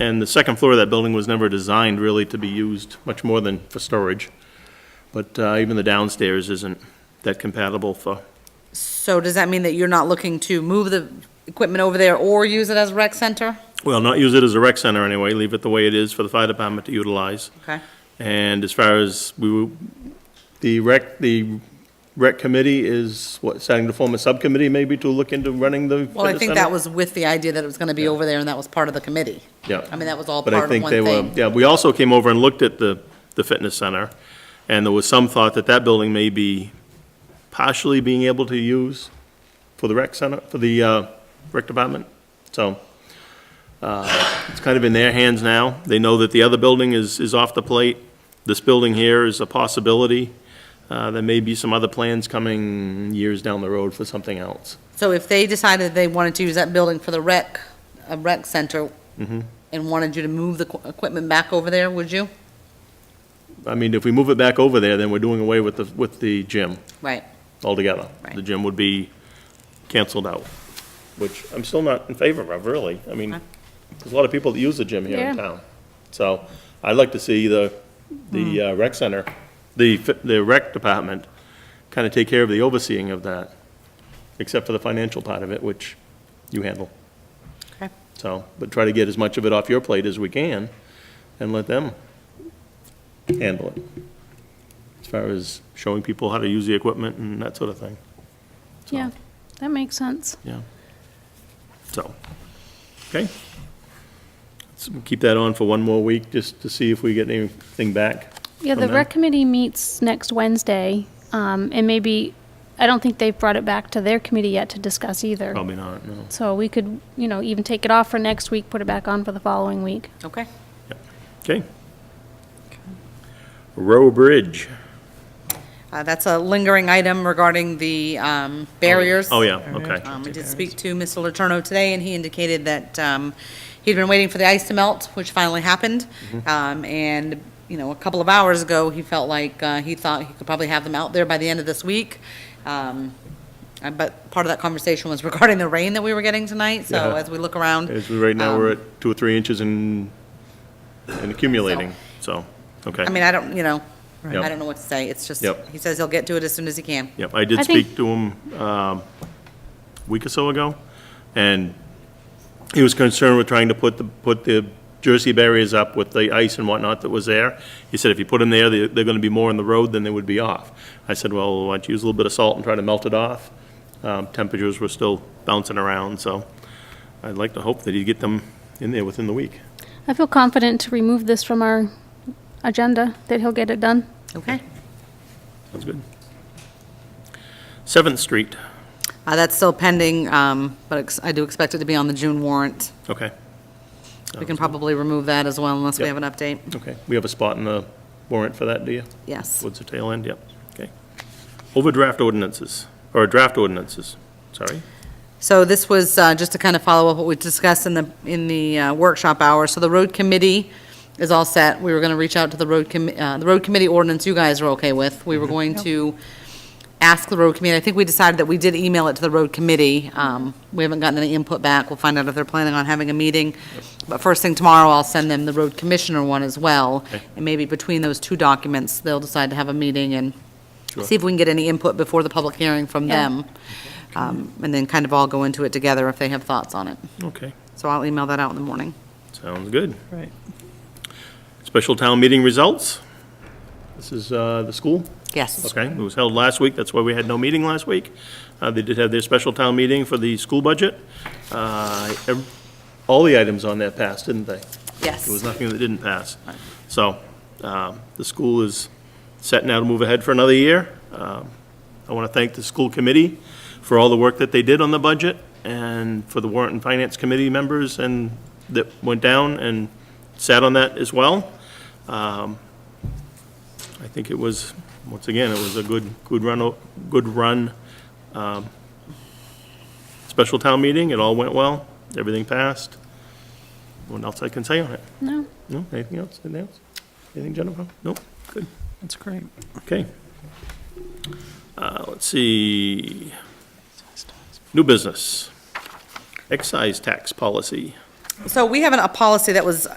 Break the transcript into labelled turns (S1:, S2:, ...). S1: And the second floor of that building was never designed really to be used much more than for storage. But uh, even the downstairs isn't that compatible for,
S2: So does that mean that you're not looking to move the equipment over there or use it as a rec center?
S1: well, not use it as a rec center anyway, leave it the way it is for the fire department to utilize.
S2: Okay.
S1: And as far as we, were- the rec, the rec committee is, what, starting to form a subcommittee maybe to look into running the
S2: Well, I
S1: fitness
S2: think
S1: center?
S2: that was with the idea that it was gonna be over there and that was part of the committee.
S1: Yeah.
S2: I mean, that was all
S1: But
S2: part
S1: I
S2: of
S1: think
S2: one
S1: they were,
S2: thing.
S1: yeah, we also came over and looked at the, the fitness center, and there was some thought that that building may be partially being able to use for the rec center, for the, uh, rec department, so, uh, it's kind of in their hands now. They know that the other building is, is off the plate. This building here is a possibility. Uh, there may be some other plans coming years down the road for something else.
S2: So if they decided they wanted to use that building for the rec, a rec center,
S1: Mm-hmm.
S2: and wanted you to move the qu- equipment back over there, would you?
S1: I mean, if we move it back over there, then we're doing away with the, with the gym.
S2: Right.
S1: altogether.
S2: Right.
S1: The gym would be canceled out, which I'm still not in favor of, really. I mean,
S2: Okay.
S1: there's a lot of people that use the gym here in
S2: Yeah.
S1: town. So I'd like to see the, the
S2: Hmm.
S1: uh, rec center, the, fi- the rec department kind of take care of the overseeing of that, except for the financial part of it, which you handle.
S2: Okay.
S1: So, but try to get as much of it off your plate as we can and let them handle it. As far as showing people how to use the equipment and that sort of thing.
S3: Yeah, that makes sense.
S1: Yeah. So, okay. Let's keep that on for one more week, just to see if we get anything back.
S3: Yeah,
S1: from
S3: the
S1: them.
S3: rec committee meets next Wednesday, um, and maybe, I don't think they've brought it back to their committee yet to discuss either.
S1: Probably not, no.
S3: So we could, you know, even take it off for next week, put it back on for the following week.
S2: Okay.
S1: Okay. Row Bridge.
S2: Uh, that's a lingering item regarding the, um, barriers.
S1: Oh, yeah, okay.
S2: Um, I did speak to Mr. Letourneau today, and he indicated that um, he'd been waiting for the ice to melt, which finally happened.
S1: Mm-hmm.
S2: Um, And, you know, a couple of hours ago, he felt like uh, he thought he could probably have them out there by the end of this week. Um, uh, But part of that conversation was regarding the rain that we were getting tonight, so
S1: Yeah.
S2: as we look around.
S1: As we, right now, we're
S2: um,
S1: at two or three inches and, and accumulating, so, okay.
S2: I mean, I don't, you know,
S1: Yep.
S2: I don't know what to say. It's just,
S1: Yep.
S2: he says he'll get to it as soon as he can.
S1: Yep, I did
S3: I think-
S1: speak to him um, a week or so ago, and he was concerned with trying to put the, put the Jersey barriers up with the ice and whatnot that was there. He said if you put them there, they- they're going to be more in the road than they would be off. I said, well, why don't you use a little bit of salt and try to melt it off? Um, Temperatures were still bouncing around, so I'd like to hope that he'd get them in there within the week.
S3: I feel confident to remove this from our agenda, that he'll get it done.
S2: Okay.
S1: That's good. Seventh Street,
S2: Uh, That's still pending, um, but ex- I do expect it to be on the June warrant.
S1: okay,
S2: We can probably remove that as well unless we
S1: Yep.
S2: have an update.
S1: okay. We have a spot in the warrant for that, do you?
S2: Yes.
S1: Towards the tail end, yep, okay. Overdraft ordinances, or draft ordinances, sorry.
S2: So this was uh, just to kind of follow up what we discussed in the, in the uh, workshop hour. So the road committee is all set. We were going to reach out to the road commi, uh, the road committee ordinance you guys are okay with. We were
S1: Mm-hmm.
S2: going to ask the road committee, I think we decided that we did email it to the road committee. Um, We haven't gotten any input back. We'll find out if they're planning on having a meeting. But first thing tomorrow, I'll send them the road commissioner one as well.
S1: Okay.
S2: And maybe between those two documents, they'll decide to have a meeting and see if we can get any input before the public hearing from
S3: Yeah.
S2: them. Um, And then kind of all go into it together if they have thoughts on it.
S1: Okay,
S2: So I'll email that out in the morning.
S1: sounds good.
S4: Right.
S1: Special town meeting results. This is uh, the school,
S2: Yes.
S1: okay, it was held last week, that's why we had no meeting last week. Uh, They did have their special town meeting for the school budget. Uh, ev- All the items on there passed, didn't they?
S2: Yes.
S1: There was nothing that didn't pass. So, um, the school is set now to move ahead for another year. Um, I want to thank the school committee for all the work that they did on the budget, and for the warrant and finance committee members and, that went down and sat on that as well. Um, I think it was, once again, it was a good, good run, o- good run um, special town meeting. It all went well, everything passed. What else I can say on it?
S3: No?
S1: No, anything else, anything else? Anything, Jennifer? Nope, good,
S4: That's great.
S1: okay. Uh, let's see, new business. Excise tax policy.
S2: So we have an- a policy that was